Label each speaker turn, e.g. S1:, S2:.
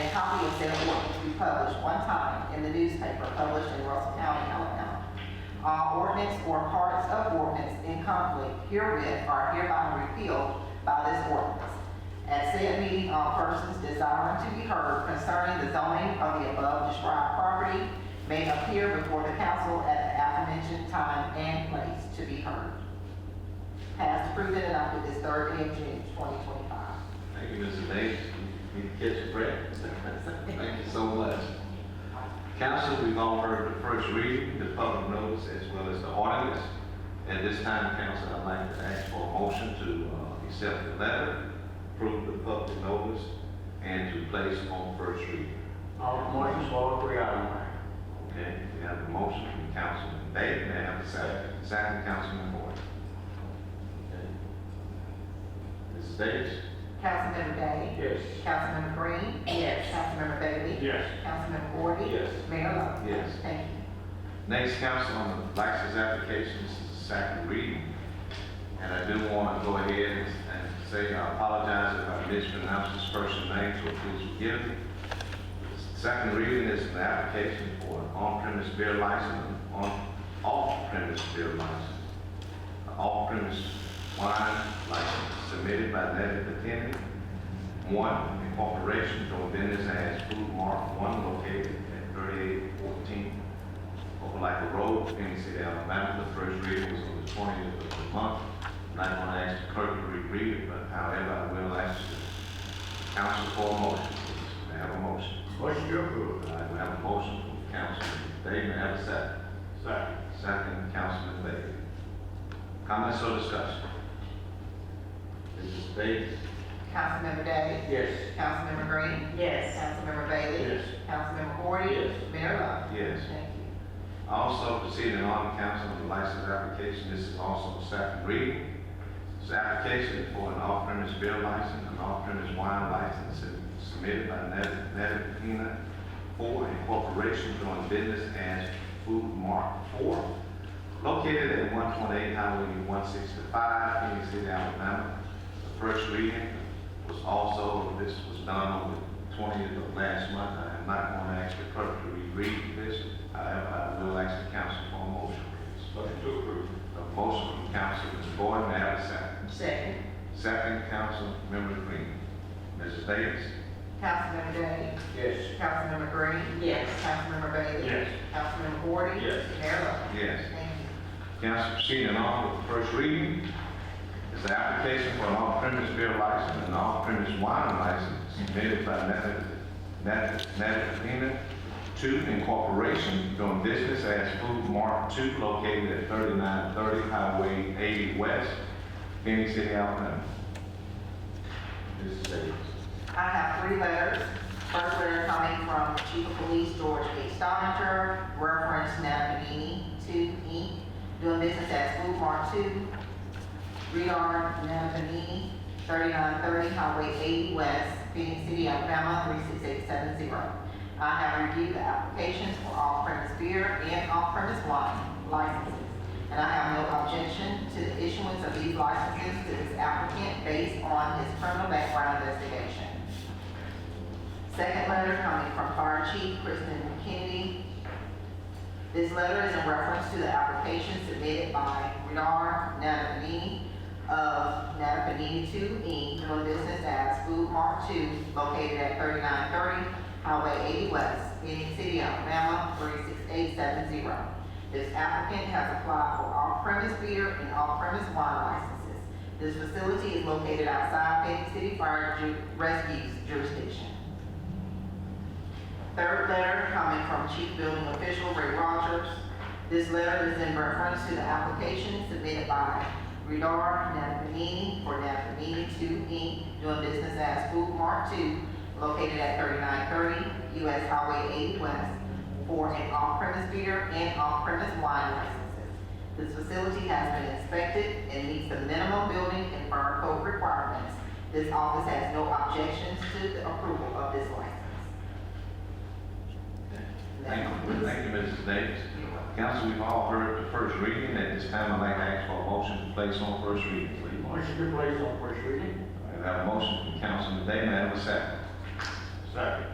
S1: a copy of said ordinance to be published one time in the newspaper published in Russell County, Alabama. All ordinance or parts of ordinance in conflict herewith are hereby repealed by this ordinance. At said meeting, all persons desiring to be heard concerning the zoning of the above described property may appear before the council at the aforementioned time and place to be heard. Passed, approved, and adopted this third day of June, 2025.
S2: Thank you, Mrs. Davis. You need to catch a break. Thank you so much. Council, we've all heard the first reading, the public notice, as well as the ordinance. At this time, council, I'd like to ask for a motion to uh, accept the letter, approve the public notice, and to place on first reading.
S3: All motions for all three items.
S2: Okay, we have a motion from Councilman Day, may I have a second? Second, Councilman Boyd. Okay. Mrs. Davis?
S1: Councilmember Day?
S3: Yes.
S1: Councilmember Green? Yes. Councilmember Bailey?
S3: Yes.
S1: Councilmember Gordon?
S3: Yes.
S1: Mayor Lo?
S2: Yes.
S1: Thank you.
S2: Next, council on the license applications, this is the second reading. And I do want to go ahead and and say I apologize if I mispronounced this person's name, so please forgive me. Second reading is an application for an on-premise beer license, and on, off-premise beer license, an off-premise wine license submitted by Nettie Patini, one incorporation doing business as Food Mart, one located at thirty-eight fourteen Opelika Road, Phoenix City, Alabama. The first reading was on the twentieth of the month. I'm not going to ask the clerk to reread it, but however, I will ask the council for a motion, please. May I have a motion?
S3: Motion to approve.
S2: All right, we have a motion from Councilman Day, may I have a second?
S3: Second.
S2: Second, Councilman Bailey. Comments or discussion? Mrs. Davis?
S1: Councilmember Day?
S3: Yes.
S1: Councilmember Green? Yes. Councilmember Bailey?
S3: Yes.
S1: Councilmember Gordon?
S3: Yes.
S1: Mayor Lo?
S2: Yes.
S1: Thank you.
S2: Also proceeding on council on the license application, this is also a second reading. This application is for an off-premise beer license, an off-premise wine license submitted by Nevada for a corporation doing business as Food Mart Four, located at one twenty-eight Highway one sixty-five, Phoenix City, Alabama. The first reading was also, this was done on the twentieth of last month. I am not going to ask the clerk to reread this. However, I will ask the council for a motion, please.
S3: Motion to approve.
S2: A motion from Councilman Boyd, may I have a second?
S1: Second.
S2: Second, Councilmember Green. Mrs. Davis?
S1: Councilmember Day?
S3: Yes.
S1: Councilmember Green? Yes. Councilmember Bailey?
S3: Yes.
S1: Councilmember Gordon?
S3: Yes.
S1: Mayor Lo?
S2: Yes.
S1: Thank you.
S2: Council proceeding on with the first reading is the application for an off-premise beer license and an off-premise wine license submitted by Natafina Two Incorporation doing business as Food Mart Two located at thirty-nine thirty Highway eighty West, Phoenix City, Alabama. Mrs. Davis.
S1: I have three letters. First letter coming from Chief of Police George H. Stoninger, reference Napanini Two Inc., doing business as Food Mart Two, Redar Napanini, thirty-nine thirty Highway eighty West, Phoenix City, Alabama, three six eight seven zero. I have reviewed the applications for off-premise beer and off-premise wine licenses, and I have no objection to the issuance of these licenses to this applicant based on his criminal background investigation. Second letter coming from Fire Chief Kristen Kennedy. This letter is in reference to the application submitted by Renard Natapanini of Natapanini Two Inc., doing business as Food Mart Two, located at thirty-nine thirty Highway eighty West, Phoenix City, Alabama, three six eight seven zero. This applicant has applied for off-premise beer and off-premise wine licenses. This facility is located outside Phoenix City Fire Ju- Rescue's jurisdiction. Third letter coming from Chief Building Official Ray Rogers. This letter is in reference to the application submitted by Redar Napanini for Napanini Two Inc., doing business as Food Mart Two, located at thirty-nine thirty US Highway eighty West, for an off-premise beer and off-premise wine licenses. This facility has been inspected and meets the minimum building and fire code requirements. This office has no objections to the approval of this license.
S2: Thank you, thank you, Mrs. Davis. Council, we've all heard the first reading. At this time, I'd like to ask for a motion to place on first reading, please.
S3: Motion to place on first reading.
S2: I have a motion from Councilman Day, may I have a second?
S3: Second.